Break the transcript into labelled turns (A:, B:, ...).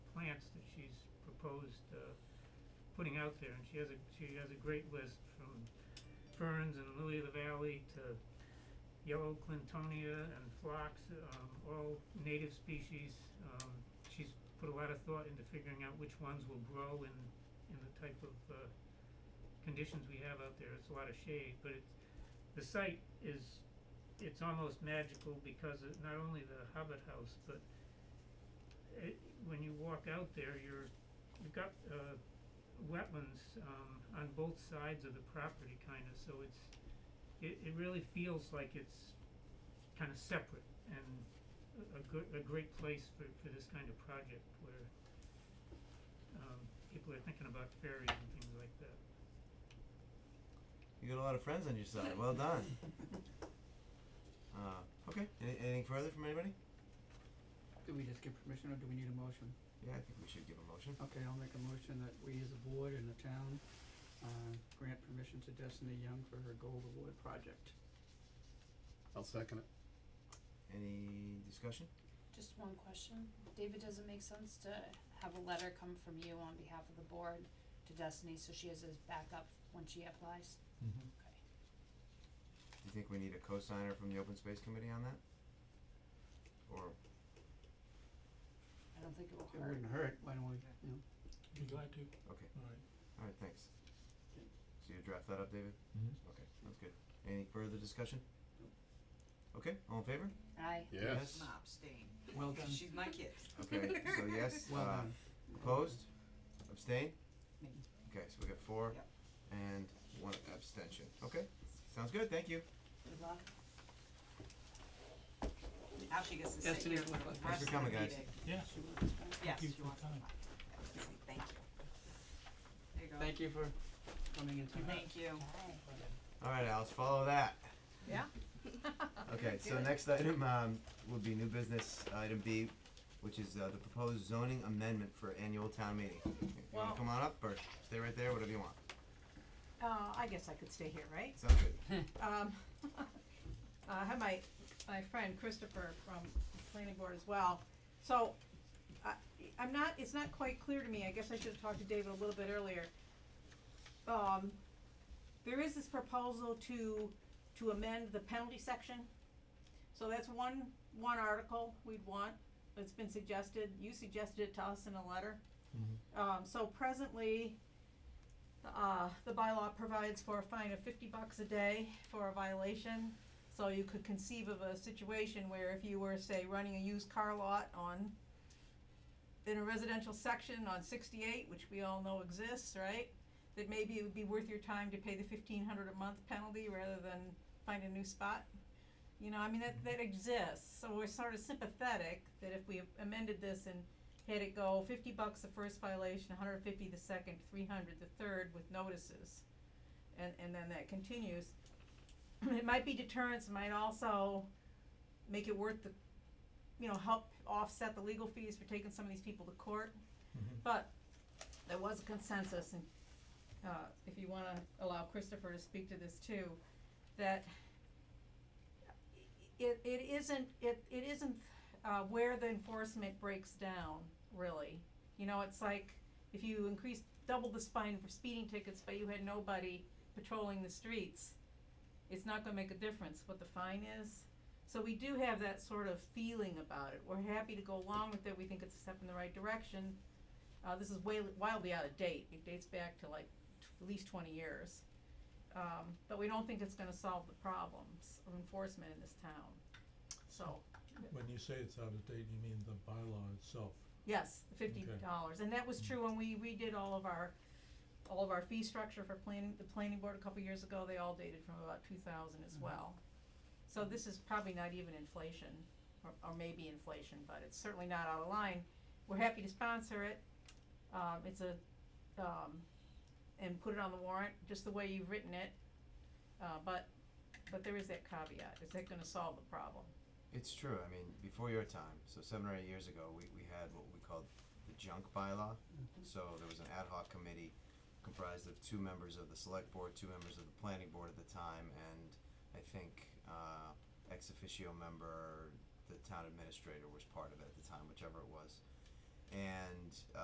A: proposed, uh, putting out there, and she has a, she has a great list from ferns and lily of the valley to yellow clintonia and phlox, um, all native species. Um, she's put a lot of thought into figuring out which ones will grow in, in the type of, uh, conditions we have out there. It's a lot of shade, but it's, the site is, it's almost magical because of not only the Hobbit House, but it, uh, when you walk out there, you're, you've got, uh, wetlands, um, on both sides of the property kinda, so it's, it, it really feels like it's kinda separate and a, a good, a great place for, for this kind of project where, um, people are thinking about fairies and things like that.
B: You got a lot of friends on your side. Well done. Uh, okay. Any, anything further from anybody?
C: Do we just give permission or do we need a motion?
B: Yeah, I think we should give a motion.
C: Okay, I'll make a motion that we as a board and the town, uh, grant permission to Destiny Young for her gold award project.
D: I'll second it.
B: Any discussion?
E: Just one question. David, does it make sense to have a letter come from you on behalf of the board to Destiny so she has his backup when she applies?
B: Mm-hmm.
E: Okay.
B: Do you think we need a co-signer from the Open Space Committee on that? Or
E: I don't think it will
C: It
E: hurt.
C: wouldn't hurt, why don't we, you know,
F: Be glad to,
B: okay.
F: alright.
B: All right. Thanks.
C: Okay.
B: So you draft that up, David.
F: Mm-hmm.
B: Okay. That's good. Any further discussion? Okay. All in favor?
E: Aye.
D: Yes.
G: I'm abstaining,
C: well done,
G: because she's my kid.
B: Okay. so yes.
C: well
B: uh,
C: done.
B: Opposed? Abstain?
G: Me.
B: Okay, so we got four
G: Yep.
B: and one abstention. Okay, sounds good, thank you.
E: Good luck.
G: Now she gets to sit
C: Destiny,
G: here for the
C: what-
G: rest of the meeting.
B: Thanks for coming, guys.
F: Yeah,
C: She wants to-
G: Yes,
F: you
G: she
F: for
G: wants to
F: coming.
G: come. Yes, Thank you. There you go.
C: Thank you for coming in tonight.
G: Thank you.
E: Aye.
B: Alright, Alice, follow that.
G: Yeah.
B: Okay, so next item, um, would be new business, item B, which is, uh, the proposed zoning amendment for annual town meeting. You wanna
G: Well-
B: come on up or stay right there, whatever you want,
H: Uh, I guess I could stay here, right?
B: sounds good.
H: Um, I have my, my friend Christopher from the planning board as well. So, I, I'm not, it's not quite clear to me, I guess I should have talked to David a little bit earlier. Um, there is this proposal to, to amend the penalty section. So that's one, one article we'd want, that's been suggested, you suggested it to us in a letter. Um, so presently, uh, the bylaw provides for a fine of fifty bucks a day for a violation. So you could conceive of a situation where if you were, say, running a used car lot on, in a residential section on sixty-eight, which we all know exists, right? That maybe it would be worth your time to pay the fifteen hundred a month penalty rather than find a new spot. You know, I mean, that, that exists, so we're sort of sympathetic that if we amended this and had it go fifty bucks the first violation, hundred fifty the second, three hundred the third with notices. And, and then that continues. It might be deterrence, it might also make it worth the, you know, help offset the legal fees for taking some of these people to court. But there was a consensus and, uh, if you wanna allow Christopher to speak to this too, that it, it isn't, it, it isn't, uh, where the enforcement breaks down, really. You know, it's like if you increase, double the fine for speeding tickets, but you had nobody patrolling the streets, it's not gonna make a difference what the fine is. So we do have that sort of feeling about it. We're happy to go along with it. We think it's a step in the right direction. Uh, this is way, wildly out of date. It dates back to like t- at least twenty years. Um, but we don't think it's gonna solve the problems of enforcement in this town. So,
F: When you say it's out of date, you mean the bylaw itself.
H: Yes, fifty
F: Okay.
H: dollars, and that was true when we redid all of our, all of our fee structure for planning, the planning board a couple years ago, they all dated from about two thousand as well. So this is probably not even inflation, or, or maybe inflation, but it's certainly not out of line. We're happy to sponsor it, um, it's a, um, and put it on the warrant, just the way you've written it. Uh, but, but there is that caveat, is that gonna solve the problem?
B: It's true, I mean, before your time, so seven or eight years ago, we, we had what we called the junk bylaw. So there was an ad hoc committee comprised of two members of the select board, two members of the planning board at the time, and I think, uh, ex officio member, the town administrator was part of it at the time, whichever it was. And uh,